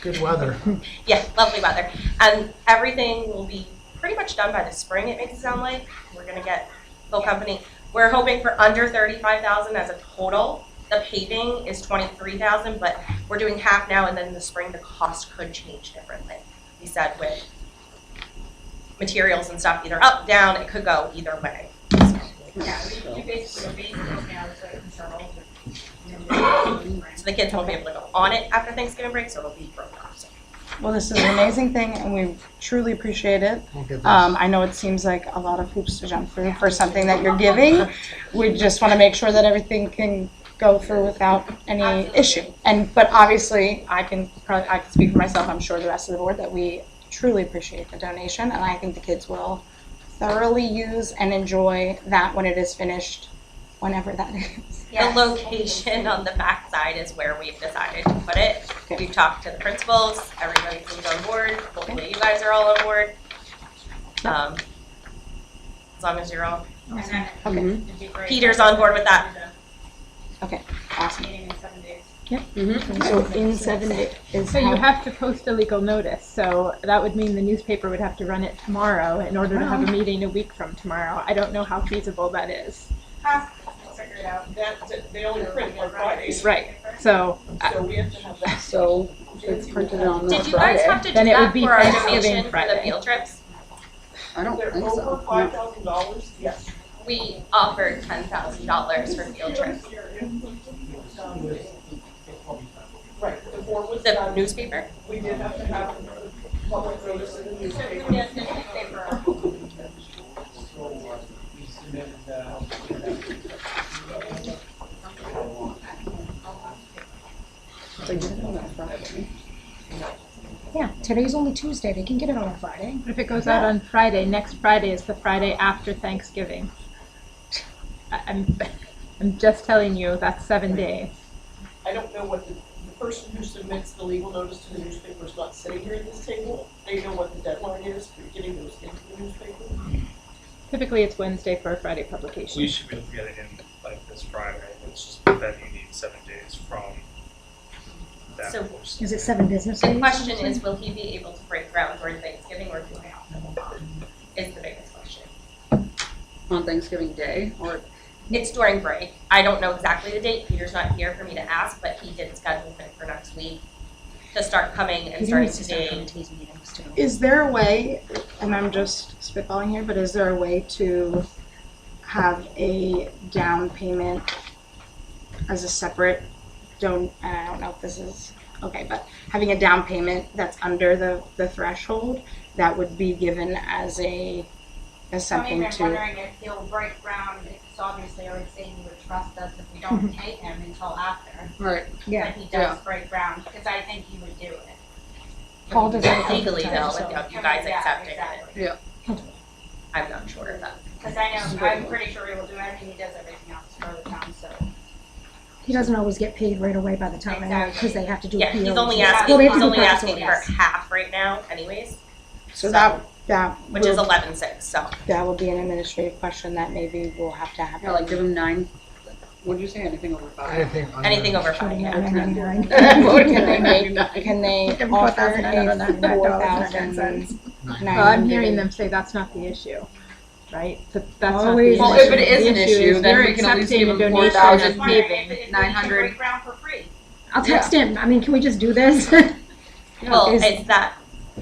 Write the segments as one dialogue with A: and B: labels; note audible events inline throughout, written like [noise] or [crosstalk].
A: Good weather.
B: Yeah, lovely weather. And everything will be pretty much done by the spring, it makes it sound like. We're gonna get full company. We're hoping for under thirty-five thousand as a total. The paving is twenty-three thousand, but we're doing half now and then in the spring, the cost could change differently. We said with materials and stuff, either up, down, it could go either way.
C: Yeah, we- you basically are basing it now so it can sell all the- and then-
B: So the kids won't be able to go on it after Thanksgiving break, so it'll be broken off. So
D: Well, this is an amazing thing, and we truly appreciate it.
A: We'll get this.
D: Um, I know it seems like a lot of hoops to jump through for something that you're giving. We just want to make sure that everything can go through without any
C: Absolutely.
D: issue. And but obviously, I can probably I can speak for myself. I'm sure the rest of the board that we truly appreciate the donation, and I think the kids will thoroughly use and enjoy that when it is finished, whenever that is.
B: The location on the back side is where we've decided to put it. We've talked to the principals, everybody seems on board, hopefully you guys are all on board. Um, As long as you're all,
C: and then
D: Okay.
C: it'd be great.
B: Peter's on board with that.
D: Awesome.
C: Meeting in seven days.
E: So in seven days is
F: So you
E: how,
F: have to post a legal notice, so that would mean the newspaper would have to run it tomorrow in order to
G: Oh.
F: have a meeting a week from tomorrow. I don't know how feasible that is.
C: We'll figure it out.
H: That, they only print on Fridays,
F: Right. So
H: so we have to have that.
E: so it's printed on
B: Did
E: Friday.
B: you guys have to do
F: Then it would
B: that
F: be
B: for our
F: Thanksgiving
B: donation for the
F: Friday.
B: field trips?
E: I don't
H: They're
E: think
H: over
E: so.
H: five thousand dollars, yes.
B: We offered ten thousand dollars for field trips.
H: Right, the board was
B: The
H: done,
B: newspaper?
H: we did have to have public notice in the newspaper.
C: Yes, and if they were-
E: They did it on Friday.
G: Yeah, today's only Tuesday. They can get it on a Friday.
F: if it goes out on Friday, next Friday is the Friday after Thanksgiving. I- I'm, [laughs] I'm just telling you, that's seven days.
H: I don't know what the, the person who submits the legal notice to the newspaper is not sitting here at this table. They know what the deadline is for getting those into the newspaper.
F: Typically, it's Wednesday for a Friday publication.
I: We should be able to get it in like this Friday, it's just that you need seven days from that
B: So-
I: post.
G: Is it seven business days?
B: The question is, will he be able to break ground during Thanksgiving or do I have to hold on? Is the biggest question.
E: On Thanksgiving Day or
B: It's during break. I don't know exactly the date. Peter's not here for me to ask, but he did schedule it for next week to start coming and
G: He
B: starting
G: needs to start coming
B: today.
G: to these meetings too.
D: Is there a way, and I'm just spitballing here, but is there a way to have a down payment as a separate don't, and I don't know if this is, okay, but having a down payment that's under the, the threshold, that would be given as a, as something
C: I'm even
D: to,
C: wondering if he'll break ground, because obviously I would say he would trust us if we
G: [laughs]
C: don't pay him until after.
E: right?
G: Yeah,
C: But he
E: yeah.
C: does break ground, because I think he would do it.
G: Paul does it
B: Legally though,
G: so-
B: without you guys
C: Yeah,
B: accepting it,
C: exactly.
B: I'm not sure of that.
C: Because I know, I'm pretty sure he will do it, I mean, he does everything else for the town, so.
G: He doesn't always get paid right away by the time, because they have to do.
B: Yeah, he's
G: POs.
B: only
C: Yeah,
B: asking,
G: they
B: he's
G: have to do
B: only
G: purchase
B: asking for
G: orders.
B: half right now anyways,
D: so that, that
B: which is
D: will,
B: eleven six, so.
D: that will be an administrative question that maybe we'll have to have.
E: Yeah, like give them nine. What did you say? Anything over five?
A: Anything under.
B: Anything over five,
G: Putting
B: yeah.
G: out 99. [laughs]
D: [laughs]
E: What can they make nine?
D: Can they
E: Give them
D: offer
E: $4,999.99.
D: a four thousand?
F: Well, Oh, I'm hearing them say that's not the issue, right? That- That's not the
G: Always.
F: issue.
G: Well,
E: if it is an
F: The
E: issue,
F: is
E: then
F: you're
E: we can at least
F: accepting
E: give
F: a
E: them
F: donation of
E: 4,000
C: I'm wondering if-
F: paving.
C: if he can
E: 900.
C: Break ground for free.
G: I'll text him. I mean, can we just do this? [laughs]
B: Well,
D: Is-
B: is that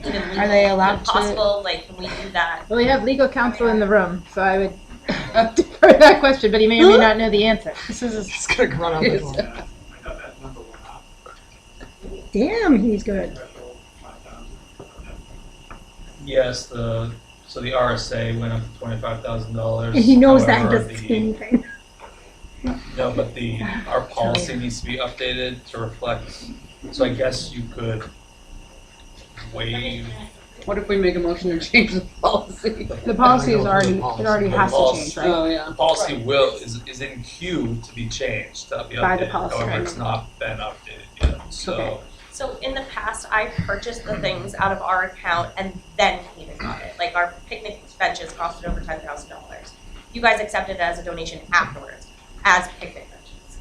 B: even
D: Are they
B: legal,
D: allowed
B: Even
D: to-
B: possible, like, can we do that?
F: Well, we have legal counsel in the room, so I would [laughs] defer that question, but he may or may not know the answer.
D: This is a
A: It's gonna [laughs] run out the door.
J: I got that number went up,
G: Damn, he's good.
J: threshold five thousand.
I: Yes, the, so the RSA went up to twenty-five thousand dollars.
G: And he knows that and doesn't say anything.
I: No, but the, our policy needs to be updated to reflect, so I guess you could waive
E: [laughs] What if we make a motion to change the policy?
F: The policy is
A: The
F: already, it
A: policy.
F: already
I: The
F: has to
I: policy.
F: change, right?
E: Oh yeah.
I: The policy will, is, is in queue to be changed, to be
D: By the
I: updated,
D: policy,
I: however, it's not been updated yet, so.
B: So in the past, I purchased the things out of our account and then Peter got it. Like our picnic benches costed over ten thousand dollars. You guys accepted it as a donation afterwards, as picnic benches.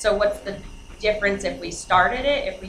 B: So what's the difference if we started it, if we